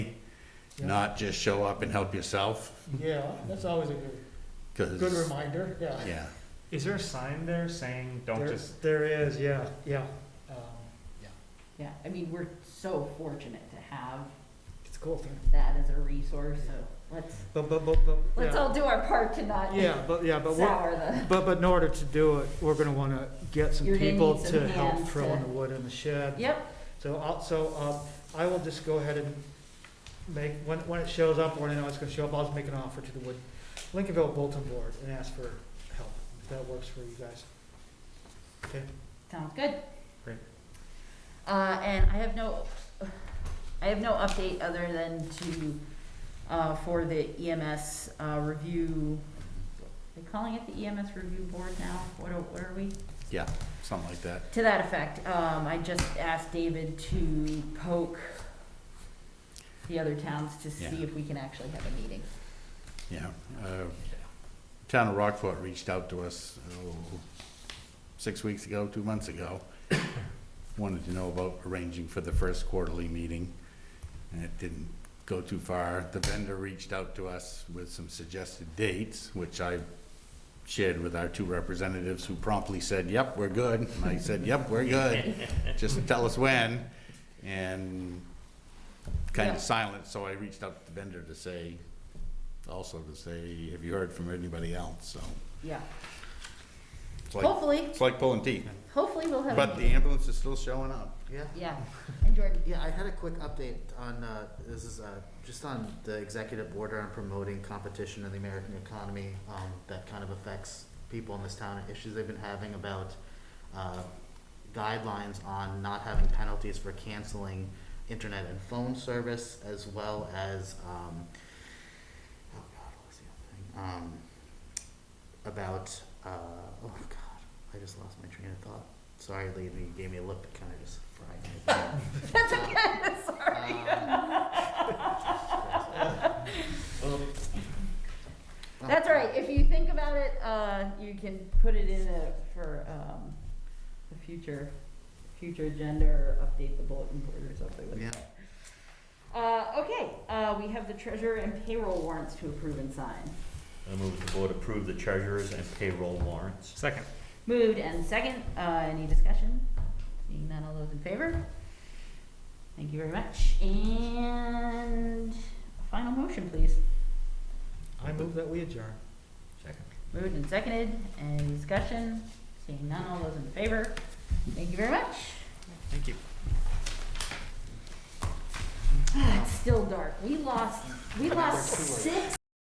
not just show up and help yourself, Yeah, that's always a good, because. good reminder, yeah. Yeah, Is there a sign there saying, don't There- just, There is, yeah, yeah. Um, Yeah, I mean, we're so fortunate to have It's a cool thing. that as a resource, so let's, But, but, but, but. let's yeah. all do our part to not Yeah, but, yeah, but we're, sour the, but, but in order to do it, we're gonna wanna get some You're gonna people need some to help hands throw in to- the wood in the shed. yep, So I'll, so, um, I will just go ahead and make, when, when it shows up, when I know it's gonna show up, I'll just make an offer to the Wood, Lincolnville Bulletin Board and ask for help, if that works for you guys. Okay, sounds good. Great. Uh, and I have no, I have no update other than to, uh, for the EMS, uh, review. Are they calling it the EMS review board now? What are, what are we? yeah, something like that. To that effect, um, I just asked David to poke the other towns to see Yeah. if we can actually have a meeting. Yeah, uh, town of Rockport reached out to us, oh, six weeks ago, two months ago. Wanted to know about arranging for the first quarterly meeting, and it didn't go too far. The vendor reached out to us with some suggested dates, which I shared with our two representatives, who promptly said, yep, we're good. And I said, yep, we're good, just tell us when. And kind Yeah. of silent, so I reached out to the vendor to say, also to say, have you heard from anybody else? So Yeah, it's like, hopefully, it's like pulling teeth. hopefully we'll have. a But the meeting. ambulance is still showing up. Yeah, Yeah, and Jordan, yeah, I had a quick update on, uh, this is, uh, just on the executive order on promoting competition in the American economy, um, that kind of affects people in this town and issues they've been having about, uh, guidelines on not having penalties for canceling internet and phone service, as well as, um, oh God, what was the other thing? Um, about, uh, oh God, I just lost my train of thought. Sorry, Lee, you gave me a look that kind of just fried me. that's okay, sorry. That's all right, if you think about it, uh, you can put it in a, for, um, a future, future agenda or update the bulletin board or something like that. Yeah, Uh, okay, uh, we have the treasurer and payroll warrants to approve and sign. I move that the board approve the treasurer's and payroll warrants. second, Moved and second, uh, any discussion? Seeing none, all those in favor? Thank you very much, and a final motion, please. I move that we adjourn. Second. Moved and seconded, any discussion? Seeing none, all those in favor? Thank you very much. thank you. Ah, It's still dark, we lost, we lost six